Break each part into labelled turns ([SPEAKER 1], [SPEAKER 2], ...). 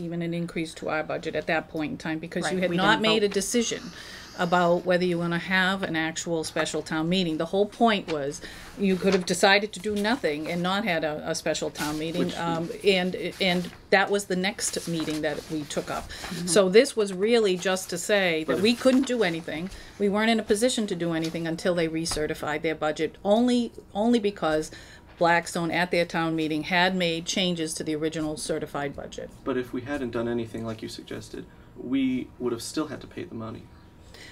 [SPEAKER 1] even an increase to our budget at that point in time, because you
[SPEAKER 2] Right,
[SPEAKER 1] had
[SPEAKER 2] we
[SPEAKER 1] not
[SPEAKER 2] didn't
[SPEAKER 1] made a
[SPEAKER 2] vote.
[SPEAKER 1] decision about whether you want to have an actual special town meeting. The whole point was, you could have decided to do nothing and not had a, a special town meeting. Um, and, and that was the next meeting that we took up.
[SPEAKER 2] Mm-hmm.
[SPEAKER 1] So this was really just to say that we couldn't do anything. We weren't in a position to do anything until they recertified their budget, only, only because Blackstone at their town meeting had made changes to the original certified budget.
[SPEAKER 3] But if we hadn't done anything like you suggested, we would have still had to pay the money.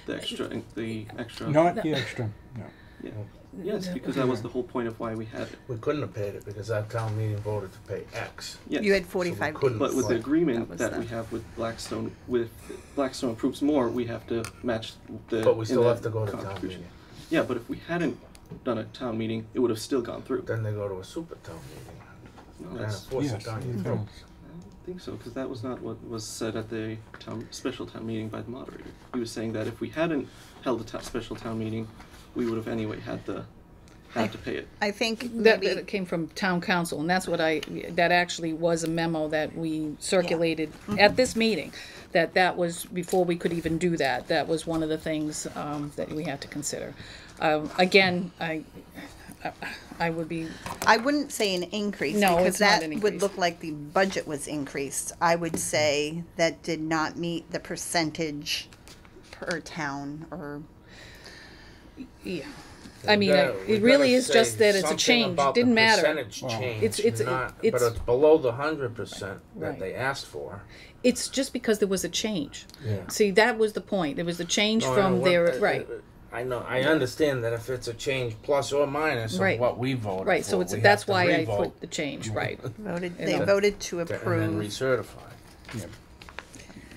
[SPEAKER 3] The extra, the extra.
[SPEAKER 4] Not the extra, no.
[SPEAKER 3] Yeah. Yes, because that was the whole point of why we had it.
[SPEAKER 5] We couldn't have paid it because our town meeting voted to pay X.
[SPEAKER 3] Yes.
[SPEAKER 2] You had
[SPEAKER 5] So we
[SPEAKER 2] forty-five
[SPEAKER 5] couldn't
[SPEAKER 3] But
[SPEAKER 2] days.
[SPEAKER 3] with the
[SPEAKER 5] afford-
[SPEAKER 3] agreement
[SPEAKER 2] was
[SPEAKER 3] that
[SPEAKER 2] the-
[SPEAKER 3] we have with Blackstone, with Blackstone approves more, we have to match the.
[SPEAKER 5] But we
[SPEAKER 3] in
[SPEAKER 5] still
[SPEAKER 3] the
[SPEAKER 5] have to go to town
[SPEAKER 3] contribution.
[SPEAKER 5] meeting.
[SPEAKER 3] Yeah, but if we hadn't done a town meeting, it would have still gone through.
[SPEAKER 5] Then they go to a super town meeting.
[SPEAKER 3] No,
[SPEAKER 5] Trying to
[SPEAKER 3] that's,
[SPEAKER 5] force
[SPEAKER 4] Yes, Mm-hmm.
[SPEAKER 5] it down your
[SPEAKER 4] you
[SPEAKER 5] throat.
[SPEAKER 4] don't.
[SPEAKER 3] I don't think so, because that was not what was said at the town, special town meeting by the moderator. He was saying that if we hadn't held a ta- special town meeting, we would have anyway had the, had to pay it.
[SPEAKER 2] I think
[SPEAKER 1] That,
[SPEAKER 2] maybe,
[SPEAKER 1] that came from town council, and that's what I, that actually was a memo that we circulated at this meeting, that that was, before we could even do that, that was one of the things um, that we had to consider. Um, Again, I, I- I would be,
[SPEAKER 2] I wouldn't say an increase,
[SPEAKER 1] No,
[SPEAKER 2] because
[SPEAKER 1] it's not
[SPEAKER 2] that
[SPEAKER 1] an
[SPEAKER 2] would
[SPEAKER 1] increase.
[SPEAKER 2] look like the budget was increased. I would say that did not meet the percentage per town or,
[SPEAKER 1] yeah, I mean, I-
[SPEAKER 5] Yeah, we
[SPEAKER 1] it really
[SPEAKER 5] gotta
[SPEAKER 1] is just
[SPEAKER 5] say
[SPEAKER 1] that it's a
[SPEAKER 5] something
[SPEAKER 1] change,
[SPEAKER 5] about
[SPEAKER 1] it
[SPEAKER 5] the
[SPEAKER 1] didn't matter.
[SPEAKER 5] Percentage
[SPEAKER 4] Well,
[SPEAKER 5] change,
[SPEAKER 1] It's- it's- it-
[SPEAKER 5] not- but
[SPEAKER 1] it's-
[SPEAKER 5] it's below the hundred percent that
[SPEAKER 1] Right.
[SPEAKER 5] they asked for.
[SPEAKER 1] It's just because there was a change.
[SPEAKER 5] Yeah.
[SPEAKER 1] See, that was the point, there was a change
[SPEAKER 5] No, I know
[SPEAKER 1] from
[SPEAKER 5] what-
[SPEAKER 1] their,
[SPEAKER 5] uh, uh,
[SPEAKER 1] right,
[SPEAKER 5] I know, I understand that if it's a change plus or minus of
[SPEAKER 1] Right.
[SPEAKER 5] what we voted for.
[SPEAKER 1] right, so it's,
[SPEAKER 5] we
[SPEAKER 1] that's
[SPEAKER 5] have to
[SPEAKER 1] why I
[SPEAKER 5] re-vote
[SPEAKER 1] put the change, right.
[SPEAKER 2] voted, they
[SPEAKER 1] know.
[SPEAKER 2] voted to
[SPEAKER 5] to- And then
[SPEAKER 2] approve.
[SPEAKER 5] recertify.
[SPEAKER 4] Yeah.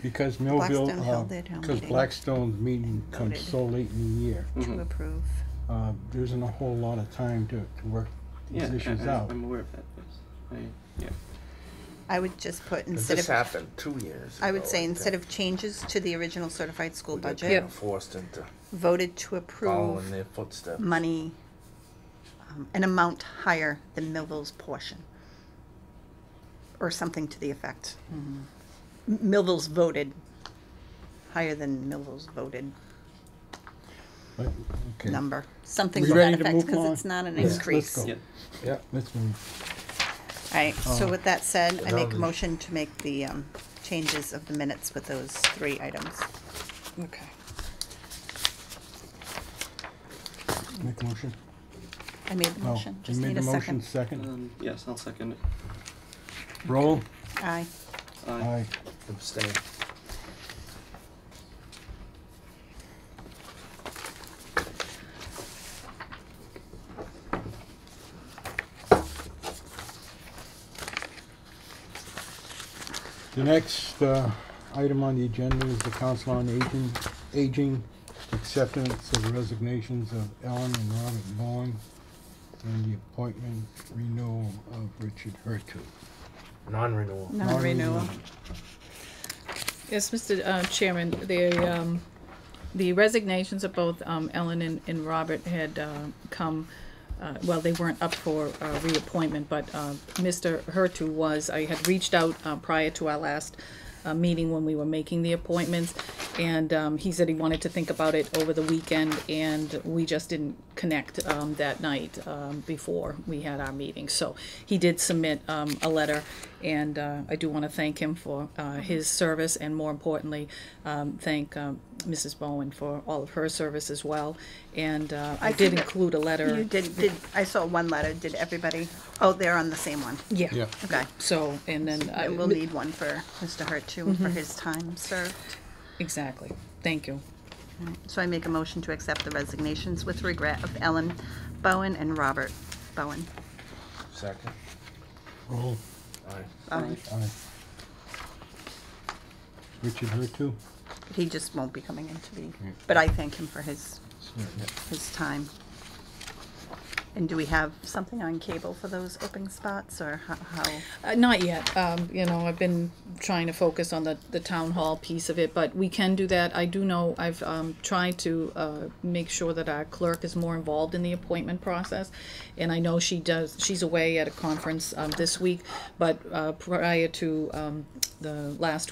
[SPEAKER 4] Because Millville,
[SPEAKER 2] Blackstone held their town
[SPEAKER 4] because
[SPEAKER 2] meeting.
[SPEAKER 4] Blackstone's meeting comes
[SPEAKER 2] Voted.
[SPEAKER 4] so late in the year,
[SPEAKER 5] mm-hmm.
[SPEAKER 2] To approve.
[SPEAKER 4] uh, there isn't a whole lot of time to, to work
[SPEAKER 3] Yeah,
[SPEAKER 4] these issues
[SPEAKER 3] I, I,
[SPEAKER 4] out.
[SPEAKER 3] I'm aware of that. Yes. I, yeah.
[SPEAKER 2] I would just put
[SPEAKER 5] But
[SPEAKER 2] instead
[SPEAKER 5] This
[SPEAKER 2] of,
[SPEAKER 5] happened two years ago.
[SPEAKER 2] I would say instead
[SPEAKER 5] think.
[SPEAKER 2] of changes to the original certified school
[SPEAKER 5] We got
[SPEAKER 2] budget,
[SPEAKER 5] kinda Forced into
[SPEAKER 2] voted to
[SPEAKER 5] following
[SPEAKER 2] approve
[SPEAKER 5] their footsteps.
[SPEAKER 2] money, um, an amount higher than Millville's portion. Or something to the effect.
[SPEAKER 4] Mm-hmm.
[SPEAKER 2] M- Millville's voted, higher than Millville's voted
[SPEAKER 4] But, okay.
[SPEAKER 2] number, something
[SPEAKER 4] We
[SPEAKER 2] to that
[SPEAKER 4] ready to
[SPEAKER 2] effect,
[SPEAKER 4] move
[SPEAKER 2] because it's
[SPEAKER 4] on?
[SPEAKER 2] not an
[SPEAKER 4] Yes, let's
[SPEAKER 2] increase.
[SPEAKER 4] go. Oh.
[SPEAKER 3] Yeah.
[SPEAKER 5] Yeah.
[SPEAKER 4] Let's move.
[SPEAKER 2] Alright, so with that said, I make a
[SPEAKER 5] Um,
[SPEAKER 2] motion to make the, um, changes of the minutes with those three items.
[SPEAKER 1] Okay.
[SPEAKER 4] Make a motion.
[SPEAKER 2] I made the
[SPEAKER 4] No,
[SPEAKER 2] motion,
[SPEAKER 4] Oh, you
[SPEAKER 2] just
[SPEAKER 4] made
[SPEAKER 2] need
[SPEAKER 4] the
[SPEAKER 2] a
[SPEAKER 4] motion,
[SPEAKER 2] second.
[SPEAKER 4] second.
[SPEAKER 3] Um, yes, I'll second it.
[SPEAKER 4] Roll.
[SPEAKER 2] Aye.
[SPEAKER 3] Aye.
[SPEAKER 4] Aye.
[SPEAKER 5] Abstain.
[SPEAKER 4] The next uh, item on the agenda is the Council on Aging, Aging acceptance of resignations of Ellen and Robert Vaughn and the appointment renewal of Richard Hurtu.
[SPEAKER 5] Non-renewal.
[SPEAKER 4] uh,
[SPEAKER 2] Non-renewal.
[SPEAKER 1] Yes, Mr. uh, Chairman, the, um, the resignations of both um, Ellen and, and Robert had uh, come, uh, well, they weren't up for uh, reappointment, but uh, Mr. Hertu was, I had reached out uh, prior to our last uh, meeting when we were making the appointments, and um, he said he wanted to think about it over the weekend, and we just didn't connect um, that night um, before we had our meeting. So he did submit um, a letter, and uh, I do want to thank him for uh, his service, and more importantly, um, thank um, Mrs. Bowen for all of her service as well. And uh, I
[SPEAKER 2] I
[SPEAKER 1] did
[SPEAKER 2] think
[SPEAKER 1] include a
[SPEAKER 2] You
[SPEAKER 1] letter.
[SPEAKER 2] did, did, I saw one letter, did everybody, oh, they're on the same one,
[SPEAKER 1] Yeah.
[SPEAKER 2] okay.
[SPEAKER 1] So, and then. uh, Mm-hmm.
[SPEAKER 2] And we'll need one for Mr. Hart too, for his time served.
[SPEAKER 1] Exactly. Thank you.
[SPEAKER 2] So I make a motion to accept the resignations with regret of Ellen Bowen and Robert Bowen.
[SPEAKER 5] Second.
[SPEAKER 4] Roll.
[SPEAKER 5] Aye.
[SPEAKER 2] Bowen.
[SPEAKER 4] Aye. Richard Hurtu.
[SPEAKER 2] He just won't be coming into the, but I thank him for his, his time. And do we have something on cable for those open spots or ho- how?
[SPEAKER 1] Uh, not yet. Um, you know, I've been trying to focus on the, the town hall piece of it, but we can do that. I do know I've um, tried to uh, make sure that our clerk is more involved in the appointment process, and I know she does. She's away at a conference um, this week, but uh, prior to um, the last